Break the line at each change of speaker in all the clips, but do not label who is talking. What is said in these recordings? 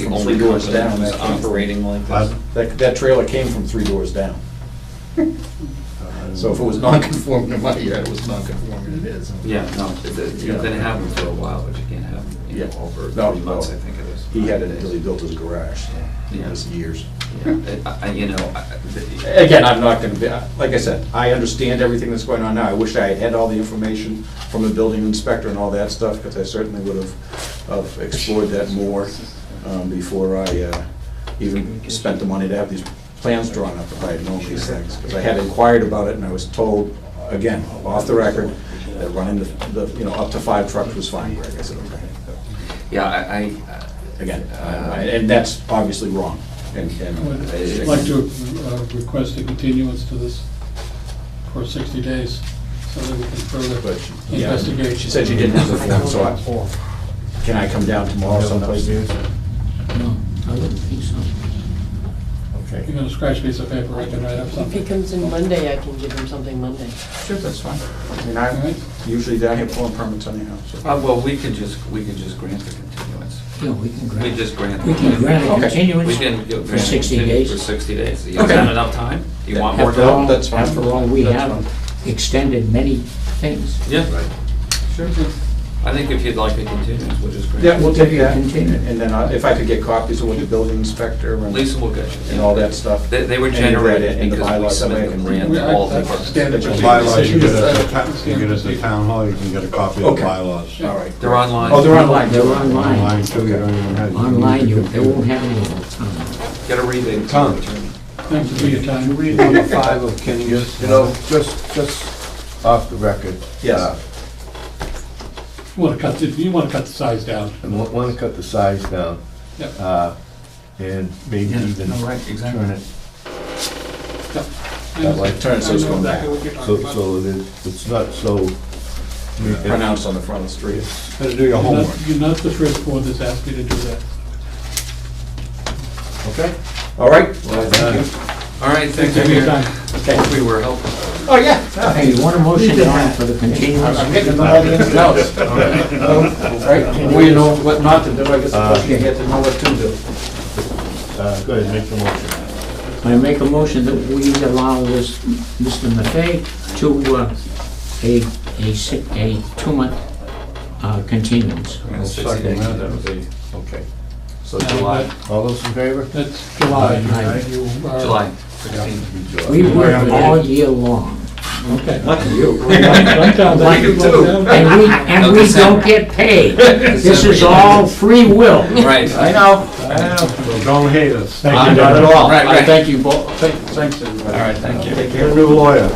from three doors down that's operating like this.
Pardon?
That, that trailer came from three doors down. So if it was non-conforming to my yard, it was non-conforming, it is.
Yeah, no, you've been having them for a while, but you can't have them you know,
Yeah.
over
No,
three months,
no.
I think it is.
He had it until he built his garage, so it was years.
Yeah, I- I- You know, I-
Again, I'm not gonna be, like I said, I understand everything that's going on now. I wish I had had all the information from the building inspector and all that stuff, because I certainly would have, have explored that more um, before I uh, even spent the money to have these plans drawn up, if I had known these things. Because I had inquired about it, and I was told, again, off the record, that running the, the, you know, up to five trucks was fine, Greg. I said, okay.
yeah, I, uh, I-
Again, I- I- and that's obviously wrong, and, and.
Well,
I'd like to uh, request a continuance to this for 60 days, so that we can further
But, yeah,
investigate.
she said she didn't have the form, so I, can I come down tomorrow someplace?
No, I wouldn't think so.
You're
Okay.
gonna scratch a piece of paper, I can write up
If he
something,
comes in Monday, I can give him something Monday.
Sure, that's fine. I mean,
all
I'm
right?
usually down here pulling permits anyhow, so.
uh, well, we can just, we can just grant the continuance.
Yeah, we can grant.
We just grant.
We can grant a
Okay.
We
continuance
can.
for 60 days.
For 60 days. Is
Okay.
that enough time? You want more
After
time?
No,
all,
that's fine.
after all, we
That's
have extended many things.
Yeah. Sure. I think if you'd like a continuance, we'll just grant.
Yeah, we'll take that,
Continue.
and then I- if I could get copies of what the building inspector and
Lisa will get you.
and all that stuff.
They, they were
And you read it
generated
in the
because we
bylaws,
submitted
somebody
them ran
can-
We-
to
I-
all the
I
departments.
stand
But
to-
your
Bylaws, you
Decision
get
is
it at
that-
ta- you get it at the town hall, you can get a copy of
Okay.
the bylaws.
All right.
They're online.
Oh, they're online.
They're
Online
online.
too, you don't even have.
Online, you, they won't have any of
Get a rebate.
Tom.
Thanks for your time.
Read number five of Kenny's, you know, just, just off the record.
Yes.
Uh,
You wanna cut, the- you wanna cut the size down.
I want to cut the size down
Yep.
uh, and maybe even turn it that way.
Turn it so it's going back,
So, so that it's not so.
pronounced on the front of the street.
Better do your
You're
homework.
not- You're not the first board that's asked me to do that.
Okay?
All right? Well,
Uh,
All right, thanks for
Thank you for your
your,
time.
hope we were helpful.
Oh, yeah.
them. Hey, you want a motion on for the continuance?
I'm getting to know all the ins and outs. Right, well, you know what not to do, I guess
Uh,
the you get to know what to do.
uh, Go ahead, make the motion.
I make a motion that we allow this, Mr. Maffei to, uh, a, a si a two-month, uh, continuance.
I mean, it's
I'll
60 days,
second
that was a-
Okay.
So
Uh,
July,
All those in favor?
That's July. You-
Aye.
you are-
July 16.
We work all year long,
Okay.
lucky you.
Write down that-
Like it too.
write down-
and we, and we don't get paid. This is all free will.
Right.
I know.
Well, Don't hate us.
Not at all.
Right,
I
right.
thank you both, Thank- thanks, everybody.
All right, thank you.
Take care.
Get a new lawyer.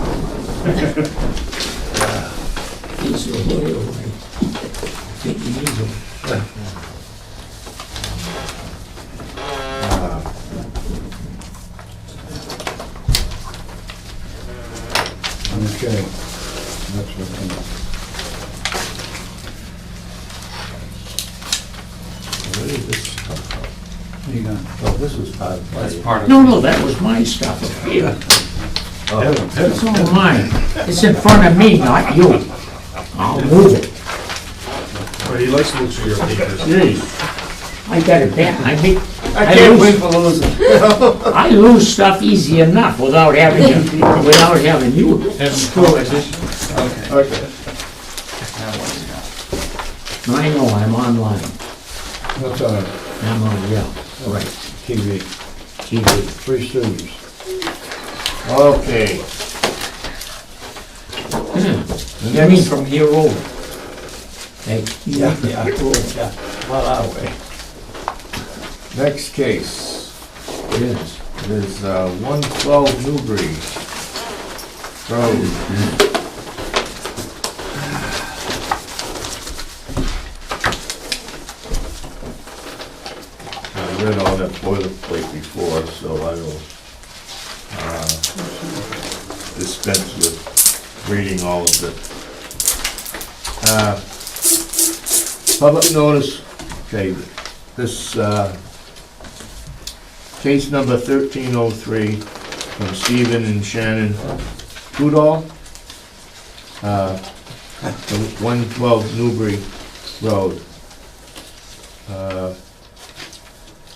He's a lawyer, right? Take it easy.
Okay. That's what
Where did this come from?
I'm, you got.
Oh, this was part of.
That's
my-
part of.
No, no, that was my stuff up here. It's all mine. It's in front of me, not you. I'll move it.
He likes to look through your papers.
I got a bet, I think,
I
I
can't wait
lose,
for losing.
I lose stuff easy enough without having, you- without having you.
Okay.
Okay.
Now what you got?
I know, I'm online.
That's on
I'm on, yeah, right,
TV.
TV.
Three students. Okay.
You mean from here over? Hey, yeah, yeah.
Next case
Yes.
is uh, 112 Newbury Road. I read all that boilerplate before, so I will uh, dispense with reading all of it. Uh, Public notice, okay, this uh, Case number 1303 from Stephen and Shannon Udall. uh, from 112 Newbury Road. Uh,